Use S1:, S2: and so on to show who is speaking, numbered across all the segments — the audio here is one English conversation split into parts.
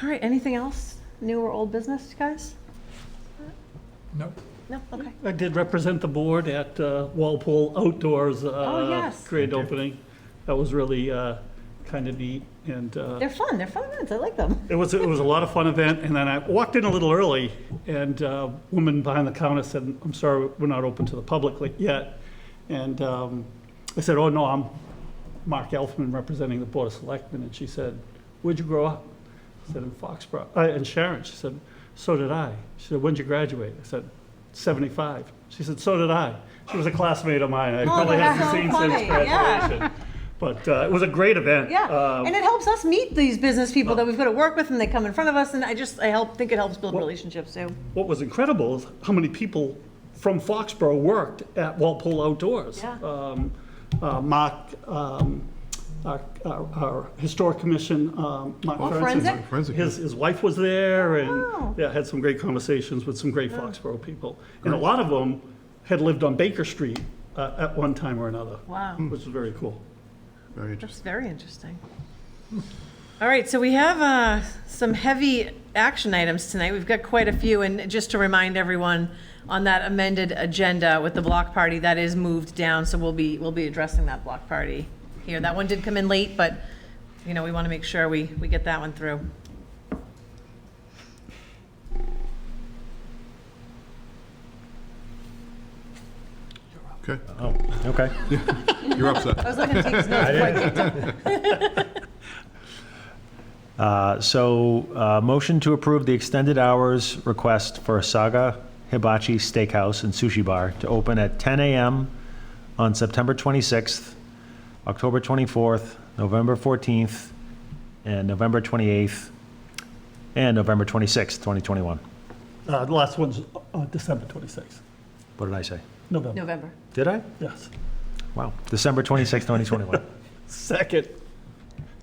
S1: All right, anything else? New or old business, guys?
S2: No.
S1: No, okay.
S3: I did represent the board at uh, Walpole Outdoors.
S1: Oh, yes.
S3: Great opening. That was really kind of neat, and uh,
S1: They're fun, they're fun events, I like them.
S3: it was, it was a lot of fun event, and then I walked in a little early, and a woman behind the counter said, "I'm sorry, we're not open to the public li- yet." And um, I said, "Oh, no, I'm Mark Elfman representing the Board of Selectmen," and she said, "Where'd you grow up?" I said, "In Foxborough." Uh, And Sharon, she said, "So did I." She said, "When'd you graduate?" I said, "75." She said, "So did I." She was a classmate of mine. I probably
S1: Oh, that's
S3: haven't seen
S1: so
S3: since
S1: funny, yeah.
S3: graduation. But uh, it was a great event.
S1: Yeah,
S3: Uh,
S1: and it helps us meet these business people that we've got to work with, and they come in front of us, and I just, I help, think it helps build
S3: Well-
S1: relationships, too.
S3: what was incredible is how many people from Foxborough worked at Walpole Outdoors.
S1: Yeah.
S3: Um, uh, Mark, um, our, our, our historic commission, um, Mark
S1: Oh,
S3: Ferguson.
S1: forensic? Oh.
S2: Forensic,
S3: His, his wife was there
S1: wow.
S3: and, yeah, had some great conversations with some great Foxborough people. And a lot of them had lived on Baker Street, uh, at one time or another.
S1: Wow.
S3: Which was very cool.
S2: very interesting.
S1: That's very interesting. All right, so we have uh, some heavy action items tonight. We've got quite a few, and just to remind everyone, on that amended agenda with the block party, that is moved down, so we'll be, we'll be addressing that block party here. That one did come in late, but, you know, we want to make sure we, we get that one through.
S2: Okay,
S4: Oh, okay.
S2: you're up, Seth.
S1: I was looking at Steve's notes before I kicked him.
S4: Uh, So, uh, motion to approve the extended hours request for Saga Hibachi Steakhouse and Sushi Bar to open at 10 a.m. on September 26th, October 24th, November 14th, and November 28th, and November 26th, 2021.
S3: Uh, the last one's, uh, December twenty-sixth,
S4: What did I say?
S3: November,
S1: November.
S4: Did I?
S3: yes.
S4: Wow. December 26th, 2021.
S3: Second.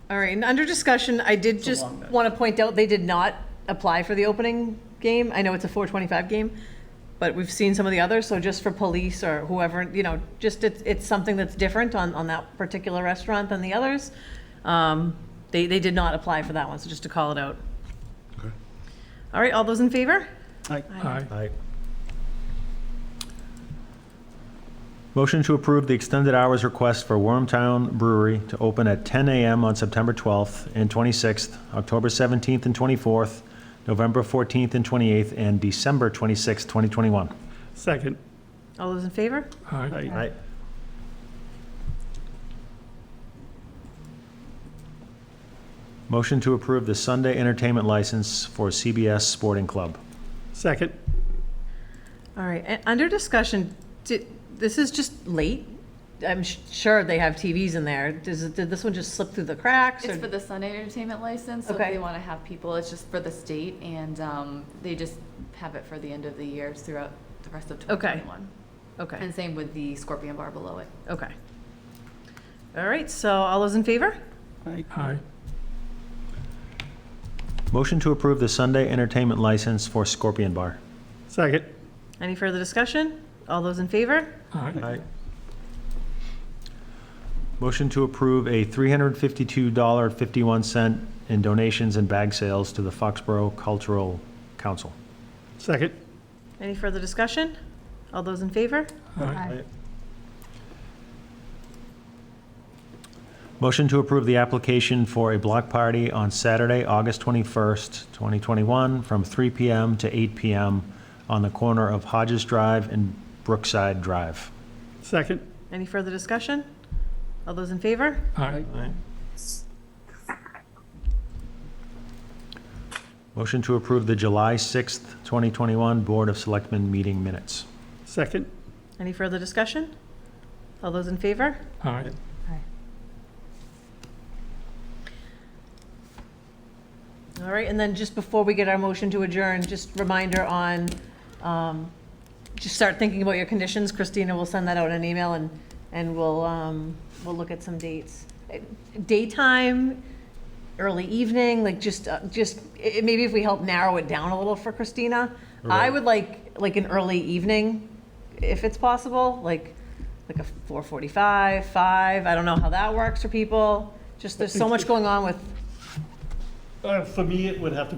S1: All right, and under discussion, I did just want to point out, they did not apply for the opening game. I know it's a 425 game, but we've seen some of the others, so just for police or whoever, you know, just it's, it's something that's different on, on that particular restaurant than the others. Um, They, they did not apply for that one, so just to call it out.
S2: Okay.
S1: All right, all those in favor?
S3: Aye. Aye.
S4: Aye. Motion to approve the extended hours request for Wormtown Brewery to open at 10 a.m. on September 12th and 26th, October 17th and 24th, November 14th and 28th, and December 26th, 2021.
S3: Second.
S1: All those in favor?
S3: Aye.
S4: Aye. Motion to approve the Sunday entertainment license for CBS Sporting Club.
S3: Second.
S1: All right, and under discussion, did, this is just late. I'm sh- sure they have TVs in there. Does, it- did this one just slip through the cracks?
S5: It's
S1: or-
S5: for the Sunday entertainment license, so if
S1: Okay.
S5: they want to have people, it's just for the state, and um, they just have it for the end of the year throughout the rest of
S1: Okay.
S5: 2021.
S1: Okay,
S5: And same with the Scorpion Bar below it.
S1: okay. All right, so all those in favor?
S3: Aye.
S4: Motion to approve the Sunday entertainment license for Scorpion Bar.
S3: Second.
S1: Any further discussion? All those in favor?
S3: Aye.
S4: Motion to approve a $352.51 in donations and bag sales to the Foxborough Cultural Council.
S3: Second.
S1: Any further discussion? All those in favor?
S4: Motion to approve the application for a block party on Saturday, August 21st, 2021, from 3 PM to 8 PM on the corner of Hodges Drive and Brookside Drive.
S3: Second.
S1: Any further discussion? All those in favor?
S3: Aye.
S4: Motion to approve the July 6th, 2021 Board of Selectmen meeting minutes.
S3: Second.
S1: Any further discussion? All those in favor?
S3: Aye.
S1: All right, and then just before we get our motion to adjourn, just reminder on, um, just start thinking about your conditions. Christina will send that out in an email and, and we'll, um, we'll look at some dates. Daytime, early evening, like just, uh, just, i- maybe if we help narrow it down a little for Christina. I
S4: Right.
S1: would like, like an early evening, if it's possible, like, like a four forty-five, five, I don't know how that works for people. Just, there's so much going on with
S3: Uh, For me, it would have to